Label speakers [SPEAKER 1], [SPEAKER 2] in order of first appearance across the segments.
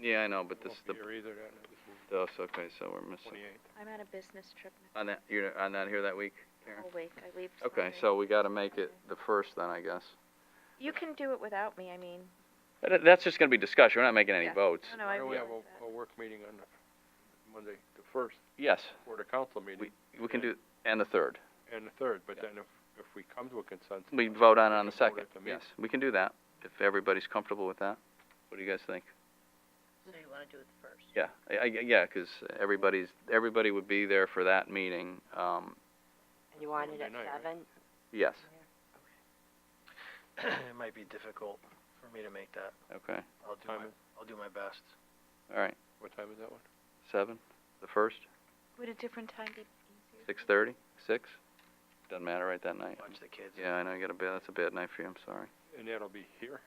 [SPEAKER 1] Yeah, I know, but this is the,
[SPEAKER 2] Won't be here either, that
[SPEAKER 1] those, okay, so we're missing.
[SPEAKER 2] twenty-eight.
[SPEAKER 3] I'm on a business trip next
[SPEAKER 1] On that, you're, on that here that week, Karen?
[SPEAKER 3] whole week, I leave
[SPEAKER 1] Okay,
[SPEAKER 3] Sunday.
[SPEAKER 1] so we gotta make it the first then, I guess.
[SPEAKER 3] You can do it without me, I mean,
[SPEAKER 1] That, that's just gonna be discussion, we're not making any
[SPEAKER 3] Yeah.
[SPEAKER 1] votes.
[SPEAKER 3] no, no,
[SPEAKER 2] Why
[SPEAKER 3] I
[SPEAKER 2] don't we have
[SPEAKER 3] realize
[SPEAKER 2] a,
[SPEAKER 3] that.
[SPEAKER 2] a work meeting on the Monday, the first,
[SPEAKER 1] Yes,
[SPEAKER 2] for the council meeting,
[SPEAKER 1] we can do, and the third.
[SPEAKER 2] and the third, but then if, if we come to a consensus.
[SPEAKER 1] We vote on it on the
[SPEAKER 2] We can vote
[SPEAKER 1] second,
[SPEAKER 2] at the meeting.
[SPEAKER 1] yes, we can do that, if everybody's comfortable with that. What do you guys think?
[SPEAKER 4] So you wanna do it first?
[SPEAKER 1] Yeah, I, I, yeah, 'cause everybody's, everybody would be there for that meeting, um,
[SPEAKER 4] And you want it at
[SPEAKER 2] Monday night, right?
[SPEAKER 4] seven?
[SPEAKER 1] yes,
[SPEAKER 5] it might be difficult for me to make that.
[SPEAKER 1] okay,
[SPEAKER 5] I'll do
[SPEAKER 2] Time
[SPEAKER 5] my,
[SPEAKER 2] is-
[SPEAKER 5] I'll do my best.
[SPEAKER 1] all right,
[SPEAKER 2] What time is that one?
[SPEAKER 1] seven, the first,
[SPEAKER 3] Would a different time be easier?
[SPEAKER 1] six thirty, six? Doesn't matter right that night.
[SPEAKER 5] Watch the kids.
[SPEAKER 1] Yeah, I know, you got a bad, that's a bad night for you, I'm sorry.
[SPEAKER 2] And that'll be here,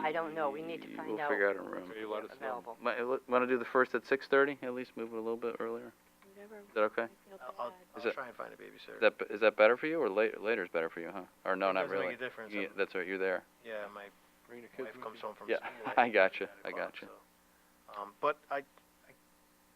[SPEAKER 4] I don't know. We need to
[SPEAKER 1] Ye-
[SPEAKER 4] find
[SPEAKER 1] We'll
[SPEAKER 4] out.
[SPEAKER 1] figure out a room.
[SPEAKER 2] okay, let us know.
[SPEAKER 4] Available.
[SPEAKER 1] Might, want to do the first at six thirty, at least move it a little bit earlier,
[SPEAKER 3] Whatever,
[SPEAKER 1] is that okay?
[SPEAKER 3] I feel
[SPEAKER 5] I'll, I'll,
[SPEAKER 3] bad.
[SPEAKER 1] Is
[SPEAKER 5] I'll
[SPEAKER 1] it-
[SPEAKER 5] try and find a
[SPEAKER 1] Is
[SPEAKER 5] babysitter.
[SPEAKER 1] that, is that better for you, or later, later's better for you, huh? Or no,
[SPEAKER 5] It
[SPEAKER 1] not
[SPEAKER 5] doesn't
[SPEAKER 1] really?
[SPEAKER 5] make a difference.
[SPEAKER 1] Yeah,
[SPEAKER 5] I'm-
[SPEAKER 1] that's right, you're there,
[SPEAKER 5] Yeah, my
[SPEAKER 2] Bring the kids
[SPEAKER 5] wife
[SPEAKER 2] with
[SPEAKER 5] comes
[SPEAKER 2] you.
[SPEAKER 5] home from
[SPEAKER 1] Yeah,
[SPEAKER 5] school.
[SPEAKER 1] I
[SPEAKER 5] at 9
[SPEAKER 1] gotcha, I
[SPEAKER 5] o'clock,
[SPEAKER 1] gotcha.
[SPEAKER 5] so. Um, but I,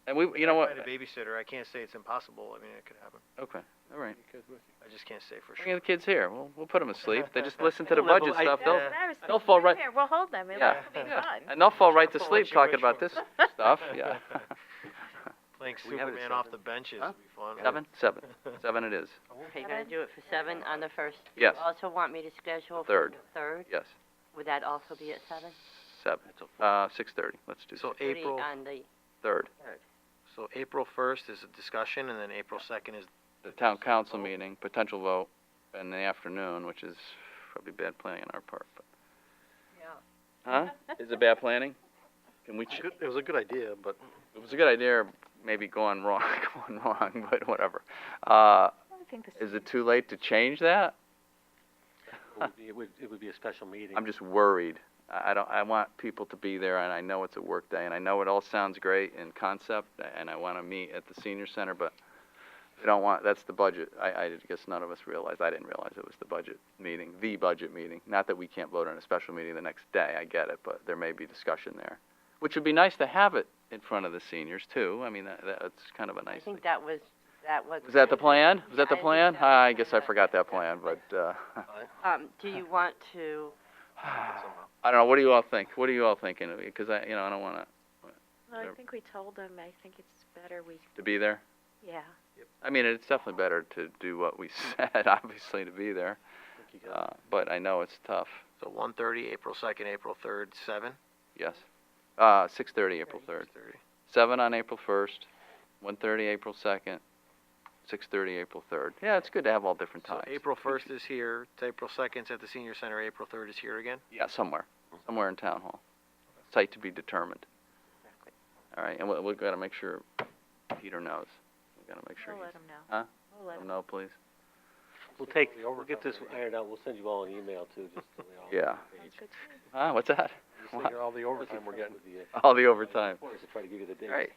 [SPEAKER 1] and we, you know
[SPEAKER 5] I
[SPEAKER 1] what,
[SPEAKER 5] find a babysitter, I can't say it's impossible, I mean, it could happen.
[SPEAKER 1] okay, all right.
[SPEAKER 2] Bring the kids with you.
[SPEAKER 5] I just can't say for
[SPEAKER 1] Bring
[SPEAKER 5] sure.
[SPEAKER 1] the kids here, we'll, we'll put them asleep, they just listen to
[SPEAKER 5] I
[SPEAKER 1] the
[SPEAKER 5] don't know, but
[SPEAKER 1] budget
[SPEAKER 5] I-
[SPEAKER 1] stuff, they'll,
[SPEAKER 5] yeah.
[SPEAKER 3] That's what I was
[SPEAKER 1] they'll
[SPEAKER 3] thinking.
[SPEAKER 1] fall
[SPEAKER 3] Come
[SPEAKER 1] right-
[SPEAKER 3] Here, we'll hold them, it'll
[SPEAKER 1] Yeah.
[SPEAKER 3] it'll be
[SPEAKER 5] Yeah.
[SPEAKER 3] fun.
[SPEAKER 1] and they'll fall right to
[SPEAKER 5] I'll
[SPEAKER 1] sleep
[SPEAKER 5] let you
[SPEAKER 1] talking
[SPEAKER 5] wish
[SPEAKER 1] about
[SPEAKER 5] for
[SPEAKER 1] this stuff, yeah.
[SPEAKER 5] Playing
[SPEAKER 1] We have it at
[SPEAKER 5] Superman off the
[SPEAKER 1] seven.
[SPEAKER 5] benches
[SPEAKER 1] Huh?
[SPEAKER 5] would be fun.
[SPEAKER 1] Seven, seven, seven it is,
[SPEAKER 4] Okay, you're gonna
[SPEAKER 3] Seven?
[SPEAKER 4] do it for seven on the first?
[SPEAKER 1] Yes.
[SPEAKER 4] You also want me to schedule? for
[SPEAKER 1] Third.
[SPEAKER 4] the Third,
[SPEAKER 1] yes,
[SPEAKER 4] would that also be at seven?
[SPEAKER 1] seven, uh, six thirty, let's do
[SPEAKER 5] So
[SPEAKER 1] six,
[SPEAKER 4] Thirty
[SPEAKER 5] April,
[SPEAKER 4] On the
[SPEAKER 1] third.
[SPEAKER 5] so April first is a discussion, and then April second is
[SPEAKER 1] the town council meeting, potential vote in the afternoon, which is probably bad planning on our part, but. Yeah. Huh? Is it bad planning? Can we, ch-
[SPEAKER 5] It was a good idea, but
[SPEAKER 1] it was a good idea, maybe going wrong, going wrong, but whatever. Uh,
[SPEAKER 3] I think this
[SPEAKER 1] is it too late to change that?
[SPEAKER 6] It would, it would be a special meeting.
[SPEAKER 1] I'm just worried. I I don't, I want people to be there, and I know it's a work day, and I know it all sounds great in concept, and I wanna meet at the senior center, but I don't want, that's the budget. I, I guess none of us realized, I didn't realize it was the budget meeting, the budget meeting. Not that we can't vote on a special meeting the next day, I get it, but there may be discussion there. Which would be nice to have it in front of the seniors too. I mean, that, that's kind of a
[SPEAKER 4] I
[SPEAKER 1] nice thing.
[SPEAKER 4] think that was, that was.
[SPEAKER 1] Was that the plan? Was that the
[SPEAKER 4] I think
[SPEAKER 1] plan? Ah,
[SPEAKER 4] that was
[SPEAKER 1] I guess I
[SPEAKER 4] kinda-
[SPEAKER 1] forgot that plan, but, uh,
[SPEAKER 4] Um, do you want to,
[SPEAKER 1] I don't know. What do you all think? What are you all thinking? Because I, you know, I don't want to
[SPEAKER 3] Well, I
[SPEAKER 1] They're-
[SPEAKER 3] think we told them, I think it's better we,
[SPEAKER 1] to be there.
[SPEAKER 3] yeah.
[SPEAKER 1] I mean, it's definitely better to do what we said, obviously, to be there. Uh, but I know it's tough.
[SPEAKER 5] so one thirty, April second, April third, seven.
[SPEAKER 1] Yes. Uh, 6:30 April 3rd. 7 on April 1st. 1:30 April 2nd. 6:30 April 3rd. Yeah, it's good to have all different
[SPEAKER 5] So
[SPEAKER 1] times.
[SPEAKER 5] April first is here, it's April second's at the senior center, April third is here again.
[SPEAKER 1] Yeah, somewhere,
[SPEAKER 5] Mm-hmm.
[SPEAKER 1] somewhere in town hall. Site to be determined. All right, and we we got to make sure Peter knows. We got to make sure.
[SPEAKER 3] We'll
[SPEAKER 1] he-
[SPEAKER 3] let them know.
[SPEAKER 1] Huh?
[SPEAKER 3] We'll let
[SPEAKER 1] Let him
[SPEAKER 3] 'em
[SPEAKER 1] know, please.
[SPEAKER 6] We'll take,
[SPEAKER 2] The
[SPEAKER 6] we'll get this
[SPEAKER 2] overtime rate.
[SPEAKER 6] ironed out, we'll send you all an email too, just so we all.
[SPEAKER 1] Yeah.
[SPEAKER 3] know. Sounds good to me.
[SPEAKER 1] Ah, what's that?
[SPEAKER 2] Just think of all the overtime we're getting.
[SPEAKER 1] All the overtime.
[SPEAKER 6] Of course, to try to give you the dates.
[SPEAKER 1] Great.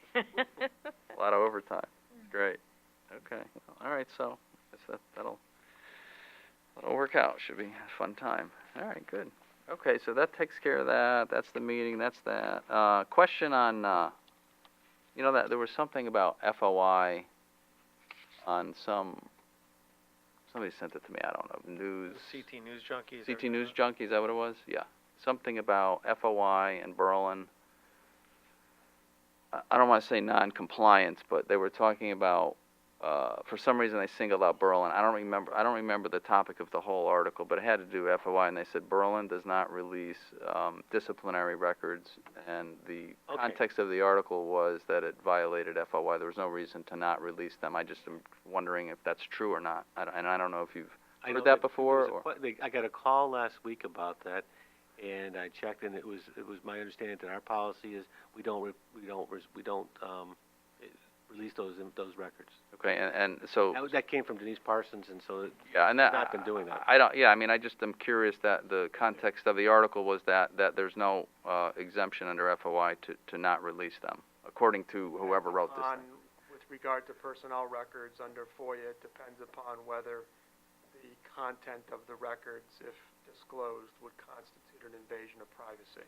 [SPEAKER 1] A lot of overtime. Great. Okay. All right. So I guess that that'll that'll work out. Should be a fun time. All right. Good. Okay. So that takes care of that. That's the meeting. That's that. Uh, question on uh, you know that there was something about FOI on some somebody sent it to me. I don't know news.
[SPEAKER 5] CT News Junkies.
[SPEAKER 1] CT News Junkie, is that what it was? Yeah. Something about FOI and Berlin. I- I don't want to say non-compliance, but they were talking about, uh, for some reason they singled out Berlin. I don't remember, I don't remember the topic of the whole article, but it had to do with FOI, and they said Berlin does not release, um, disciplinary records, and the
[SPEAKER 5] Okay.
[SPEAKER 1] context of the article was that it violated FOI. There was no reason to not release them. I just am wondering if that's true or not, I don't- and I don't know if you've
[SPEAKER 6] I know
[SPEAKER 1] heard that
[SPEAKER 6] there
[SPEAKER 1] before,
[SPEAKER 6] was a
[SPEAKER 1] or,
[SPEAKER 6] que- they- I got a call last week about that, and I checked, and it was, it was my understanding that our policy is, we don't, re- we don't, res- we don't, um, eh, release those, in- those records.
[SPEAKER 1] okay, and, and so.
[SPEAKER 6] That, was- that came from Denise Parsons, and so, it-
[SPEAKER 1] Yeah, and that.
[SPEAKER 6] not been doing that.
[SPEAKER 1] I don't, yeah, I mean, I just am curious that the context of the article was that, that there's no, uh, exemption under FOI to, to not release them, according to whoever wrote this
[SPEAKER 7] on,
[SPEAKER 1] thing.
[SPEAKER 7] with regard to personnel records under FOIA, it depends upon whether the content of the records, if disclosed, would constitute an invasion of privacy.